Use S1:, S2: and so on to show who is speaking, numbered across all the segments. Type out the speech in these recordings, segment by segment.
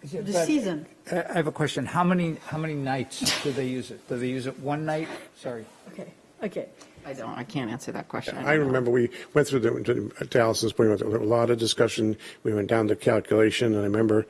S1: The
S2: But-
S1: season.
S2: I I have a question. How many, how many nights do they use it? Do they use it one night? Sorry.
S1: Okay, okay.
S3: I don't, I can't answer that question.
S4: I remember we went through the, to Allison's point, there was a lot of discussion. We went down the calculation, and I remember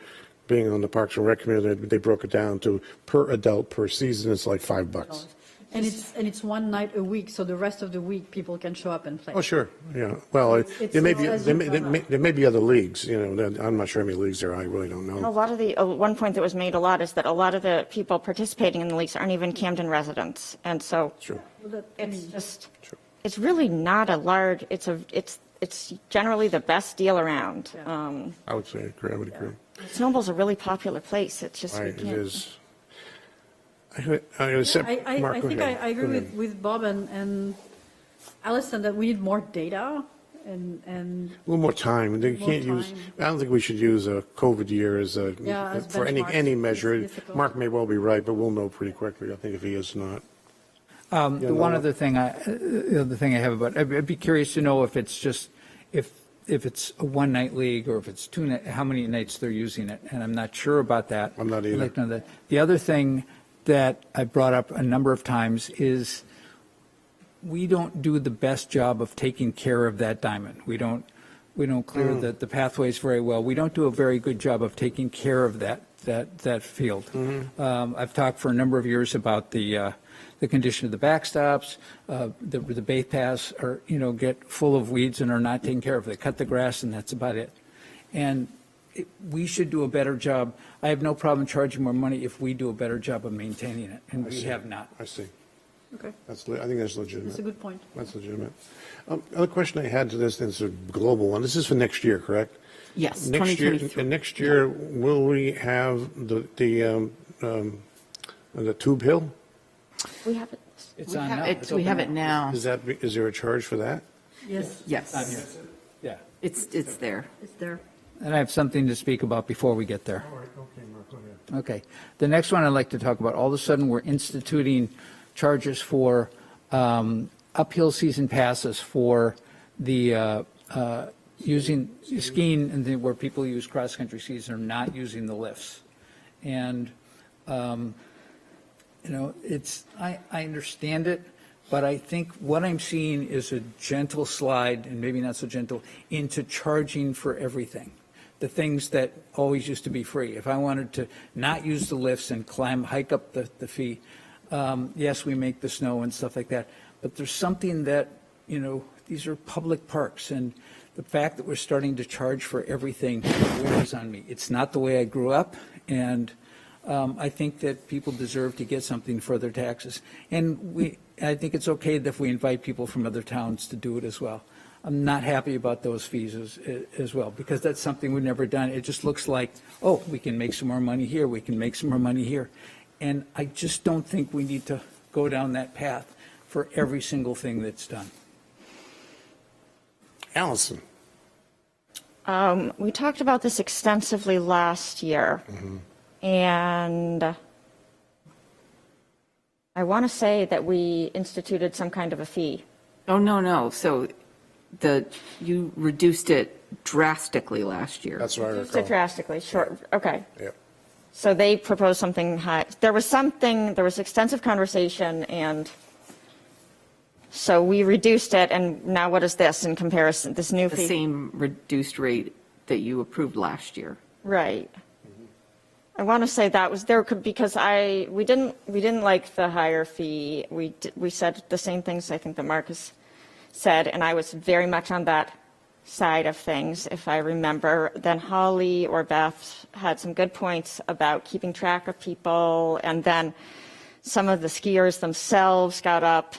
S4: being on the Parks and Rec committee, they broke it down to per adult per season, it's like five bucks.
S1: And it's, and it's one night a week, so the rest of the week, people can show up and play.
S4: Oh, sure, yeah. Well, it-
S1: It's-
S4: there may
S1: it's
S4: be,
S1: as
S4: there
S1: you
S4: may,
S1: go
S4: there may-
S1: up.
S4: there may be other leagues, you know, that- I'm not sure how many leagues there are, I really don't
S5: A
S4: know.
S5: lot of the, uh, one point that was made a lot is that a lot of the people participating in the leagues aren't even Camden residents. And so
S4: Sure.
S1: Well, that- I
S5: it's
S1: mean,
S5: just,
S4: Sure.
S5: it's really not a large, it's a, it's, it's generally the best deal around. Um,
S4: I would say, agree, I would agree.
S5: Snowball's a really popular place. It's just, we
S4: Right, it
S5: can't.
S4: is. I, heard- I accept,
S1: I, I,
S4: Mark,
S1: I
S4: go
S1: think I,
S4: ahead.
S1: I
S4: Go
S1: agree
S4: ahead.
S1: with, with Bob and, and Allison that we need more data and, and
S4: A little more time. They
S1: More
S4: can't use,
S1: time.
S4: I don't think we should use a COVID year as a,
S1: Yeah, as
S4: for any,
S1: benchmark.
S4: any
S1: It's
S4: measure.
S1: difficult.
S4: Mark may well be right, but we'll know pretty quickly, I think, if he is not.
S2: Um,
S4: Yeah,
S2: the one
S4: no.
S2: other thing, I, uh, the other thing I have about, I'd I'd be curious to know if it's just, if, if it's a one-night league or if it's two, ni- how many nights they're using it, and I'm not sure about that.
S4: I'm not
S2: I'd
S4: either.
S2: like to know that. The other thing that I brought up a number of times is we don't do the best job of taking care of that diamond. We don't, we don't clear
S4: Mm.
S2: the, the pathways very well. We don't do a very good job of taking care of that, that, that field.
S4: Mm-hmm.
S2: Um, I've talked for a number of years about the, uh, the condition of the backstops, uh, the, the bait paths are, you know, get full of weeds and are not taken care of. They cut the grass and that's about it. And it- we should do a better job. I have no problem charging more money if we do a better job of maintaining it, and we
S4: see.
S2: have not.
S4: I see.
S1: Okay.
S4: That's, le- I think that's
S1: that's a
S4: legitimate.
S1: good point.
S4: That's legitimate. Um, Other question I had to this, and it's a global one. This is for next year, correct?
S3: Yes,
S4: Next year,
S3: 2023.
S4: and next year, will we have the, the, um, um, the tube hill?
S5: We have, it.
S2: It's
S3: We
S2: on
S3: have
S2: now.
S3: it-
S2: It's
S3: we
S2: open
S3: have
S2: now.
S3: it now.
S4: Is that, is there a charge for that?
S1: Yes,
S3: Yes,
S2: Yeah.
S3: it's, it's there.
S1: it's there.
S2: And I have something to speak about before we get there.
S4: right, okay, Mark, go ahead.
S2: Okay. The next one I'd like to talk about, all of a sudden, we're instituting charges for um, uphill season passes for the, uh, uh, using skiing, and then where people use cross-country skis are not using the lifts. And you know, it's, I, I understand it, but I think what I'm seeing is a gentle slide, and maybe not so gentle, into charging for everything. The things that always used to be free. If I wanted to not use the lifts and climb, hike up the, the fee, um, yes, we make the snow and stuff like that, but there's something that, you know, these are public parks, and the fact that we're starting to charge for everything wears on me. It's not the way I grew up, and um, I think that people deserve to get something for their taxes. And we, I think it's okay that if we invite people from other towns to do it as well. I'm not happy about those fees as, as well, because that's something we've never done. It just looks like, oh, we can make some more money here, we can make some more money here. And I just don't think we need to go down that path for every single thing that's done.
S4: Allison?
S5: um, we talked about this extensively last year.
S4: Mm-hmm.
S5: And I want to say that we instituted some kind of a fee.
S3: Oh, no, no, so the, you reduced it drastically last year.
S4: That's what I
S5: Reduced it
S4: recall.
S5: drastically, short, okay.
S4: Yeah.
S5: So they proposed something high, there was something, there was extensive conversation, and so we reduced it, and now what is this in comparison, this new
S3: The
S5: fee?
S3: same reduced rate that you approved last year.
S5: Right. I want to say that was there, could because I, we didn't, we didn't like the higher fee. We, d- we said the same things, I think, that Marcus said, and I was very much on that side of things, if I remember. Then Holly or Beth had some good points about keeping track of people, and then some of the skiers themselves got up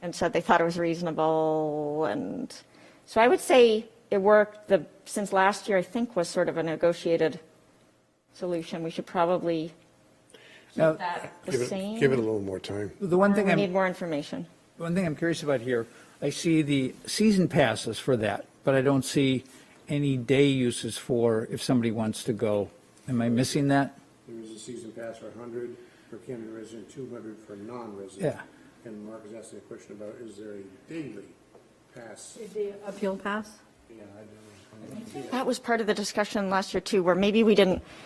S5: and said they thought it was reasonable, and so I would say it worked. The since last year, I think was sort of a negotiated solution. We should probably
S2: Now,
S5: that the
S4: Give it,
S5: same.
S4: give it a little more time.
S2: the one thing
S5: we
S2: I'm.
S5: need more information.
S2: One thing I'm curious about here, I see the season passes for that, but I don't see any day uses for if somebody wants to go. Am I missing that?
S4: There is a season pass for 100 for Camden resident, 200 for non-resident.
S2: Yeah.
S4: And Mark is asking a question about, is there a daily pass?
S1: The appeal pass?
S4: Yeah, I don't know.
S5: That was part of the discussion last year too, where maybe we didn't